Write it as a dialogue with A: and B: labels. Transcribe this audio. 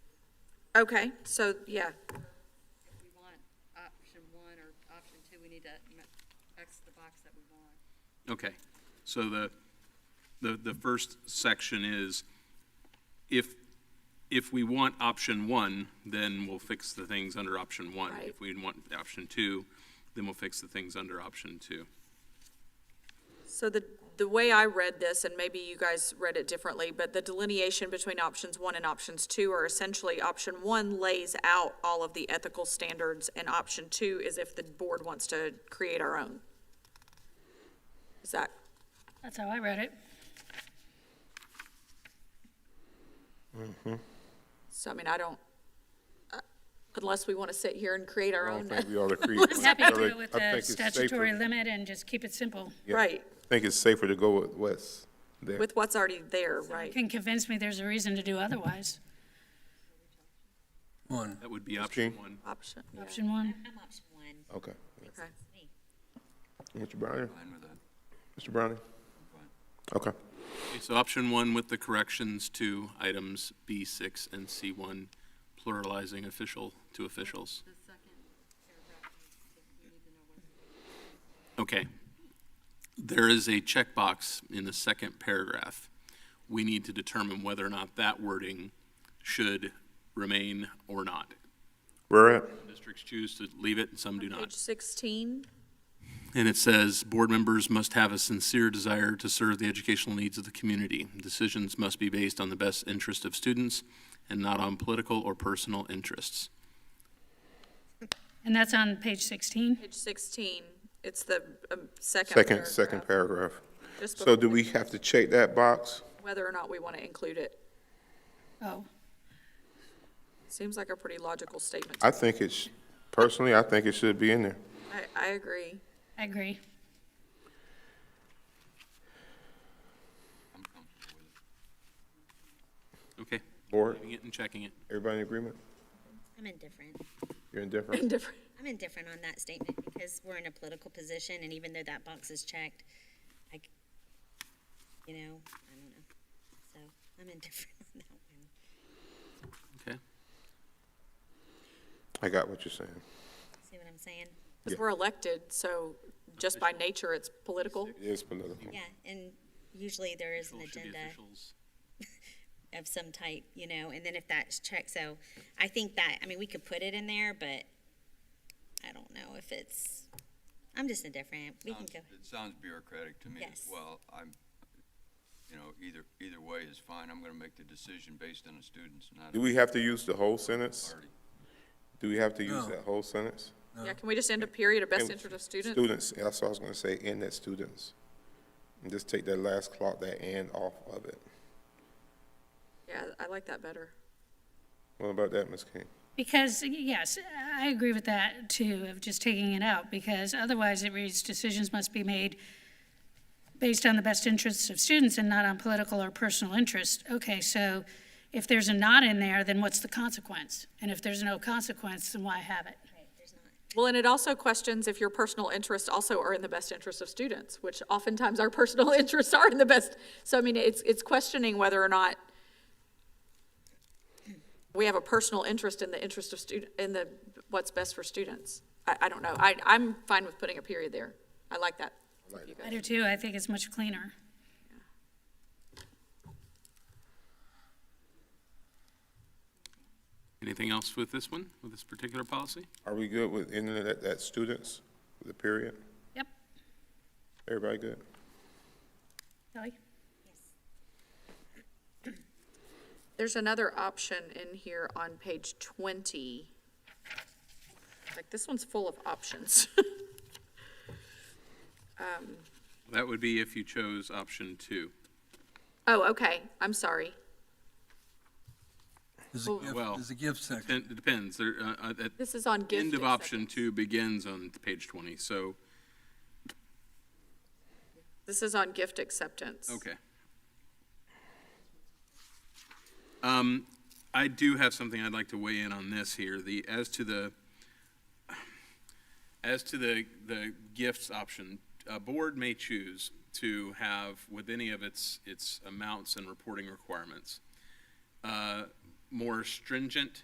A: Okay, so, yeah,
B: If we want option one or option two, we need to m- X the box that we want.
C: Okay, so the, the, the first section is, if, if we want option one, then we'll fix the things under option one.
A: Right.
C: If we want option two, then we'll fix the things under option two.
A: so the, the way I read this, and maybe you guys read it differently, but the delineation between options one and options two are essentially, option one lays out all of the ethical standards, and option two is if the board wants to create our own. Is that,
D: That's how I read it.
A: so I mean, I don't, uh, unless we want to sit here and create our
E: I don't
A: own,
E: think we ought to create.
A: Let's
D: Happy to do
E: I
D: it with
E: think
D: the
E: it's safer-
D: statutory limit and just keep it simple.
E: yeah.
A: right,
E: I think it's safer to go with Wes there.
A: with what's already there,
D: You
A: right?
D: can convince me there's a reason to do otherwise.
F: One.
C: That would be option
E: King?
C: one.
A: Option,
D: Option one,
B: I'm option one.
E: Okay.
A: okay.
E: Mr. Browning?
F: Fine with that.
E: Mr. Browning? Okay.
C: Okay, So option one with the corrections to items B six and C one, pluralizing official to officials.
B: The second paragraph, we need to know what.
C: Okay. There is a checkbox in the second paragraph. We need to determine whether or not that wording should remain or not.
E: Where at?
C: Districts choose to leave it and some do
A: Page
C: not.
A: sixteen,
C: And it says, "Board members must have a sincere desire to serve the educational needs of the community. Decisions must be based on the best interest of students and not on political or personal interests."
D: and that's on page 16.
A: page sixteen, it's the um, second uh,
E: Second, second
A: paragraph.
E: paragraph.
A: Just
E: So do
A: before-
E: we have to check that box?
A: whether or not we want to include it.
D: Oh,
A: Seems like a pretty logical statement.
E: I think it's, personally, I think it should be in there.
A: I, I agree.
D: I agree.
F: I'm comfortable with it.
C: Okay,
E: Board,
C: leaving it and checking it.
E: everybody in agreement?
G: I'm indifferent.
E: You're indifferent?
A: Different.
G: I'm indifferent on that statement because we're in a political position and even though that box is checked, I, c- you know, I don't know. So I'm indifferent on that one.
C: Okay.
E: I got what you're saying.
G: See what I'm saying?
A: Because we're elected, so just by nature, it's political.
E: It is political.
G: Yeah, and usually there is an
C: Officials should be
G: agenda
C: officials.
G: of some type, you know, and then if that's checked, so I think that, I mean, we could put it in there, but I don't know if it's, I'm just indifferent. We can
F: Sounds-
G: go.
F: It sounds bureaucratic to me as
G: Yes.
F: well. I'm, you know, either, either way is fine. I'm gonna make the decision based on the students, not.
E: Do we have to use the whole sentence?
F: Party.
E: Do we have to use
F: No.
E: that whole sentence?
A: Yeah, can we just end a period of best
E: And
A: interest of students?
E: Students, that's what I was gonna say, and that students. And just take that last clock, that and off of it.
A: Yeah, I like that better.
E: What about that, Ms. King?
D: Because, yes, I agree with that too, of just taking it out, because otherwise it reads, decisions must be made based on the best interests of students and not on political or personal interest. Okay, so if there's a not in there, then what's the consequence? And if there's no consequence, then why have it?
G: Right, there's not.
A: Well, and it also questions if your personal interests also are in the best interest of students, which oftentimes our personal interests are in the best. So I mean, it's, it's questioning whether or not we have a personal interest in the interest of student, in the, what's best for students. I, I don't know. I, I'm fine with putting a period there. I like that. You
D: I
A: guys-
D: do too, I think it's much cleaner.
C: Anything else with this one, with this particular policy?
E: Are we good with ending it at, at students, with the period?
D: Yep,
E: Everybody good?
D: Kelly?
A: There's another option in here on page twenty. Like, this one's full of options.
C: That would be if you chose option two.
A: Oh, okay, I'm sorry.
F: There's a gift,
C: Well-
F: there's a gift section.
C: It depends. There, uh, uh, at
A: This is on gift.
C: End of option two begins on page 20, so,
A: This is on gift acceptance.
C: okay. Um, I do have something I'd like to weigh in on this here, the, as to the, as to the, the gifts option, a board may choose to have with any of its, its amounts and reporting requirements, uh, more stringent